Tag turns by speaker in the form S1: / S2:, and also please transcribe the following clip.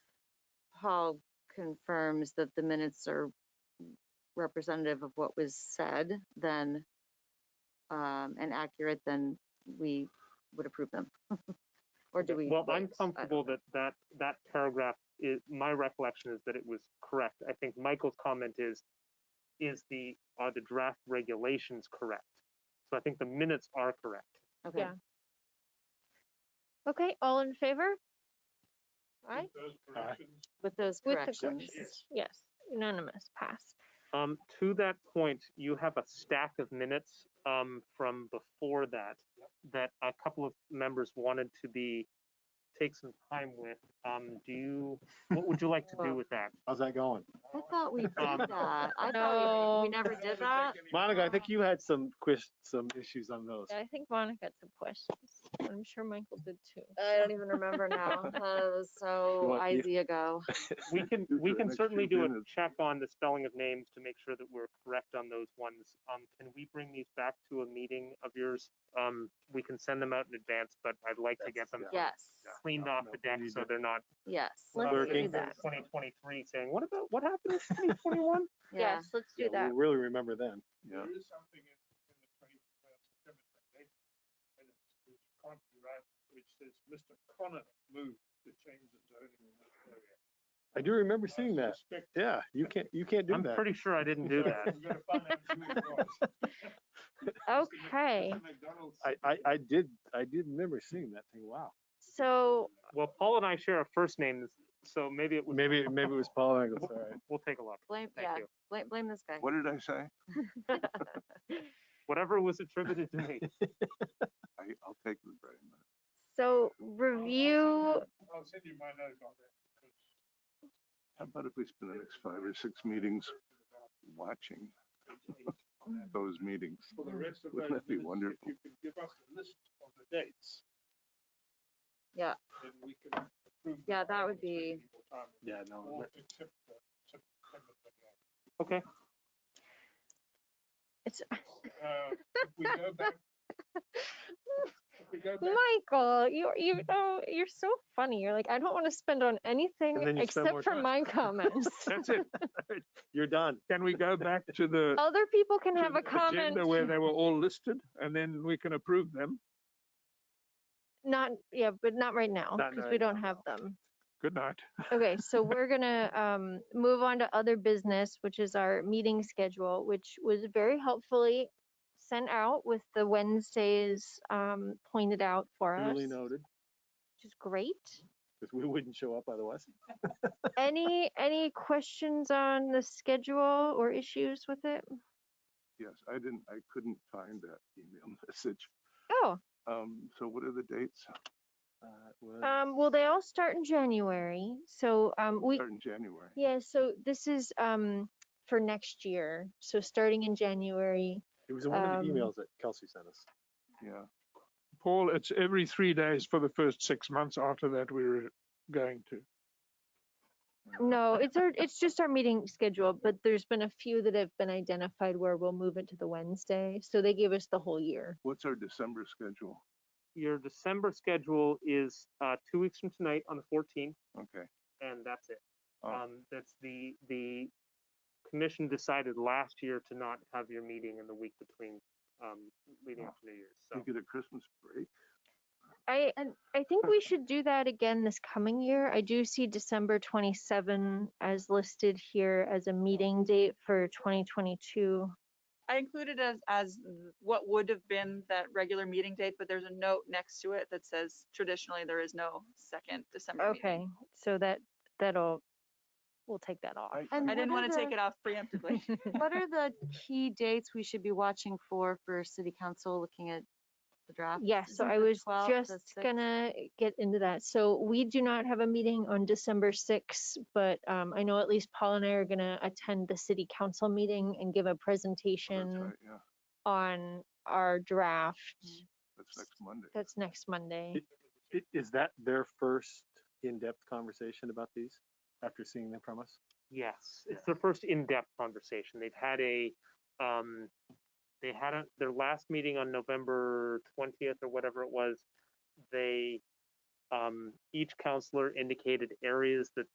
S1: Paul confirms that the minutes are representative of what was said, then, um, and accurate, then we would approve them. Or do we?
S2: Well, I'm
S1: vote? I don't
S2: comfortable
S1: know.
S2: that that, that paragraph is, my recollection is that it was correct. I think Michael's comment is, is the, are the draft regulations correct? So I think the minutes are correct.
S1: Okay,
S3: yeah. Okay, all in favor? Aye,
S1: with those
S3: With the
S1: corrections.
S3: yes, unanimous, pass.
S2: Um, to that point, you have a stack of minutes, um, from before that, that a couple of members wanted to be, take some time with. Um, do you, what would you like to do with that?
S4: How's that going?
S1: I thought we did
S2: Um,
S1: that. I thought we, we
S3: No.
S1: never did that.
S4: Monica, I think you had some quiz, some issues on those.
S3: Yeah, I think Monica had some questions. I'm sure Michael did too.
S1: I don't even remember now. That was so
S4: want-
S1: easy ago.
S2: We can,
S4: do
S2: we
S4: the
S2: can
S4: next
S2: certainly
S4: few
S2: do a
S4: minutes.
S2: check on the spelling of names to make sure that we're correct on those ones. Um, can we bring these back to a meeting of yours? Um, we can send them out in advance, but I'd like to get them
S1: Yes,
S2: cleaned off the deck so they're not
S1: yes.
S3: Let's
S2: uh,
S3: do
S2: in
S3: that.
S2: 2023 saying, what about, what happened in 2021?
S1: Yeah,
S3: Yes, let's
S4: Yeah,
S3: do that.
S4: We'll really remember them. Yeah.
S5: There is something in in the twenty, uh, September twenty-eighth, minutes, which can't be right, which says Mr. Connor moved to change the zoning in that area.
S4: I do remember
S5: I
S4: seeing that.
S5: suspect-
S4: Yeah, you can't, you can't do
S2: I'm
S4: that.
S2: pretty sure I didn't do
S5: So
S2: that.
S5: We're gonna find out who it was. Mr. Mc-
S3: Okay,
S5: Mr. McDonald
S4: I,
S5: said
S4: I,
S5: that
S4: I did, I did remember seeing that thing. Wow.
S3: so
S2: Well, Paul and I share a first name, so maybe it was,
S4: Maybe, maybe it was Paul Engel's, all right.
S2: we'll take a look.
S1: blame,
S2: Thank
S1: yeah,
S2: you.
S1: blame, blame this guy.
S6: What did I say?
S2: Whatever was attributed to me.
S6: I, I'll take the blame.
S3: So
S5: I'll- I'll send
S3: review,
S5: you- I'll send you my note on that. because
S6: How about if we spend the next five or six meetings watching those meetings?
S5: uh, For
S1: Mm-hmm.
S5: the rest of those
S6: Wouldn't that be
S5: minutes, if
S6: wonderful?
S5: you could give us a list of the dates.
S1: Yeah.
S5: Then we can approve.
S1: Yeah,
S5: them
S1: that
S5: at
S1: would
S5: the same time,
S4: Yeah, no.
S5: Or accept the September 28th.
S2: Okay,
S3: it's,
S5: Uh, if we go back. If we go back
S3: Michael, you, you know, you're so funny. You're like, I don't want to spend on
S4: then
S3: anything
S4: you spend more
S3: except for
S4: time."
S3: my comments.
S4: That's it. You're done.
S7: Can we go back to the
S3: Other people can have a comment,
S7: agenda where they were all listed and then we can approve them?
S3: not, yeah, but not right now,
S4: Not
S3: because we
S4: right
S3: don't have them.
S7: Good night.
S3: Okay, so we're gonna um, move on to other business, which is our meeting schedule, which was very helpfully sent out with the Wednesdays um, pointed out for us,
S4: Duly
S3: which
S4: noted,
S3: is great.
S4: because we wouldn't show up otherwise.
S3: Any, any questions on the schedule or issues with it?
S6: Yes, I didn't, I couldn't find that email message.
S3: Oh,
S6: Um, so what are the dates?
S4: Uh, well,
S3: um, well, they all start in January, so um, we,
S6: Start in January.
S3: yeah, so this is um, for next year. So starting in January,
S4: It was in one of the
S3: um,
S4: emails that Kelsey sent us.
S6: Yeah,
S7: Paul, it's every three days for the first six months. After that, we're going to.
S3: No, it's our, it's just our meeting schedule, but there's been a few that have been identified where we'll move it to the Wednesday. So they gave us the whole year.
S6: what's our December schedule?
S2: your December schedule is uh, two weeks from tonight on the 14th,
S6: Okay,
S2: and that's it.
S6: Oh.
S2: Um, that's the, the commission decided last year to not have your meeting in the week between, um, leading up to New Year's, so.
S6: we get a Christmas break?
S3: I, I think we should do that again this coming year. I do see December 27 as listed here as a meeting date for 2022.
S8: I included as, as what would have been that regular meeting date, but there's a note next to it that says traditionally there is no second December meeting.
S3: Okay, so that, that'll, we'll take that off.
S6: I-
S1: And
S8: I didn't
S1: what are
S8: want to take
S1: the-
S8: it off preemptively.
S1: What are the key dates we should be watching for, for city council, looking at the draft?
S3: Yeah, so I was just gonna get into that. So we do not have a meeting on December sixth, but um, I know at least Paul and I are gonna attend the city council meeting and give a
S6: oh, that's
S3: presentation
S6: right, Yeah,
S3: on our draft.
S6: that's next Monday.
S3: That's next Monday.
S4: I- Is that their first in-depth conversation about these after seeing them from us?
S2: Yes, it's their first in-depth conversation. They've had a, um, they had a, their last meeting on November twentieth or whatever it was. They, um, each counselor indicated areas that